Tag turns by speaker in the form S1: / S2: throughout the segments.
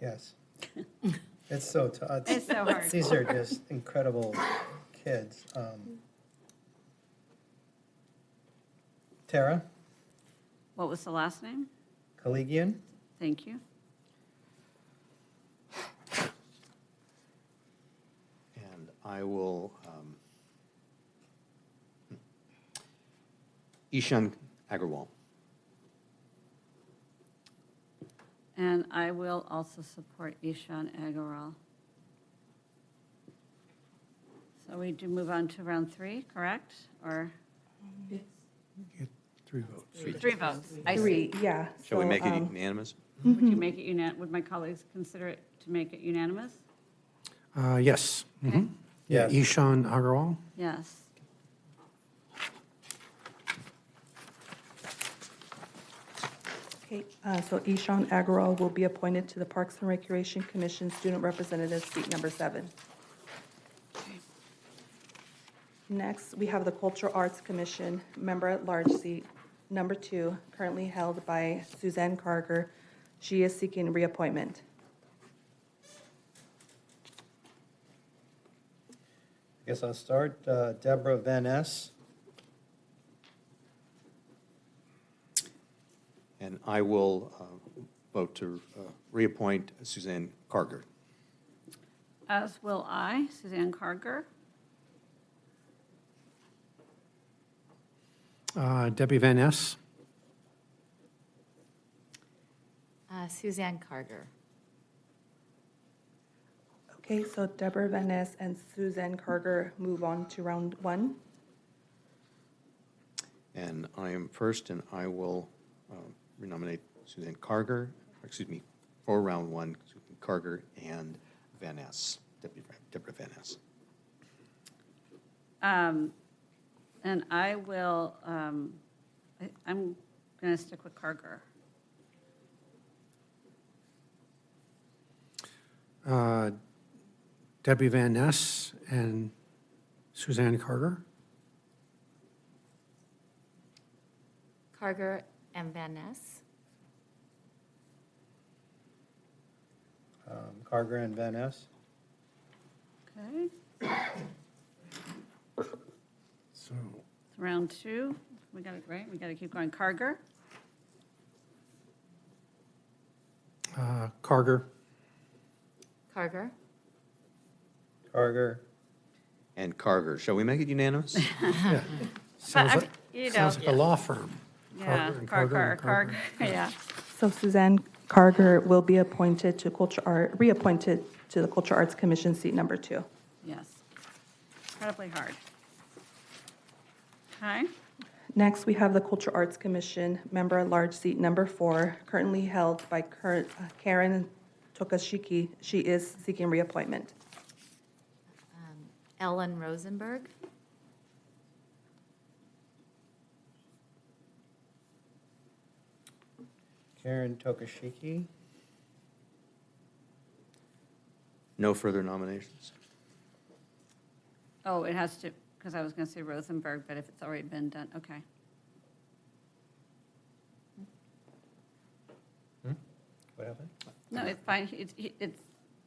S1: Yes. It's so tough.
S2: It's so hard.
S1: These are just incredible kids. Um, Tara
S2: What was the last name?
S1: Collegian,
S2: Thank you.
S3: And I will, um, hmm, Ishan Agarwal.
S2: And I will also support Ishan Agarwal. So we do move on to round three, correct? Or? Three votes. Three votes, I see.
S4: Three, yeah.
S3: Shall we
S4: so,
S3: make it e-
S4: um,
S3: unanimous?
S2: Would you make it unan, would my colleagues consider it to make it unanimous?
S5: Uh, Yes.
S2: Okay.
S5: Mhm. Yeah,
S1: Yes.
S5: Ishan Agarwal.
S2: Yes.
S4: okay, uh, So Ishan Agarwal will be appointed to the Parks and Recreation Commission Student Representative, seat number seven. Next, we have the Cultural Arts Commission, Member at Large seat, number two, currently held by Suzanne Carger. She is seeking reappointment.
S1: I guess I'll start. Uh, Deborah Van Ness.
S3: And I will uh, vote to uh, reappoint Suzanne Carger.
S2: As will I, Suzanne Carger.
S5: Uh, Debbie Van Ness.
S6: Uh, Suzanne Carter.
S4: Okay, so Deborah Van Ness and Suzanne Carger move on to round one.
S3: And I am first, and I will um, renominate Suzanne Carger, or excuse me, for round one, Suzanne Carger and Van Ness, Deputy Deborah Van Ness.
S2: Um, And I will, um, I- I'm going to stick with Carger.
S5: Uh, Debbie Van Ness and Suzanne Carter.
S6: Carter and Van Ness.
S1: Um, Carger and Van Ness.
S2: Okay,
S5: So.
S2: it's round two. We got it right, we got to keep going. Carger,
S5: uh, Carter,
S6: Carter.
S1: Carger.
S3: And Carger, shall we make it unanimous?
S2: Uh-huh.
S5: yeah. Sounds
S2: I'm- uh,
S5: like,
S2: you know,
S5: sounds like a law firm.
S2: yeah,
S5: Carger and
S2: Carger,
S5: and
S2: Carger, yeah.
S4: So Suzanne Carger will be appointed to Culture Art, reappointed to the Culture Arts Commission, seat number two.
S2: Yes. Incredibly hard. Okay,
S4: Next, we have the Culture Arts Commission, member at large, seat number four, currently held by Kar- uh, Karen Tokashiki. She is seeking reappointment.
S6: Um, Ellen Rosenberg.
S1: Karen Tokashiki.
S3: No further nominations?
S2: oh, it has to, because I was going to say Rosenberg, but if it's already been done, okay.
S1: What happened?
S2: No, it's fine, it's, it's,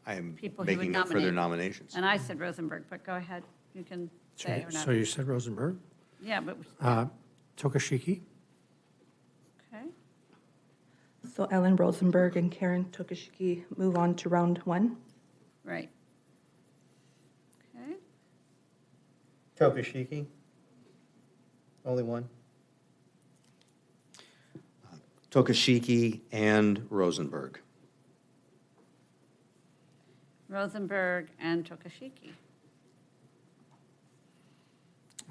S3: I am
S2: People he would
S3: making no further
S2: nominate.
S3: nominations.
S2: and I said Rosenberg, but go ahead, you can
S5: So
S2: say or not.
S5: so you said Rosenberg.
S2: Yeah, but,
S5: Uh, Tokashiki.
S2: okay.
S4: So Ellen Rosenberg and Karen Tokashiki move on to round one.
S2: Right. Okay,
S1: Tokashiki. Only one.
S3: Tokashiki and Rosenberg.
S2: Rosenberg and Tokashiki.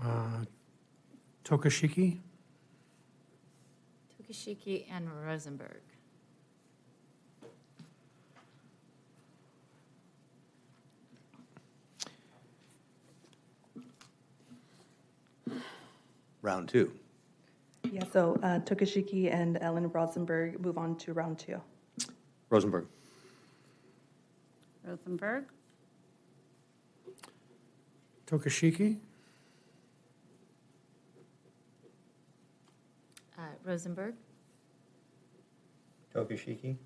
S5: Uh, Tokashiki.
S6: Tokashiki and Rosenberg.
S3: Round two.
S4: Yeah, so uh, Tokashiki and Ellen Rosenberg move on to round two.
S3: Rosenberg,
S2: Rosenberg,
S5: Tokashiki.
S6: Uh, Rosenberg.
S1: Tokashiki.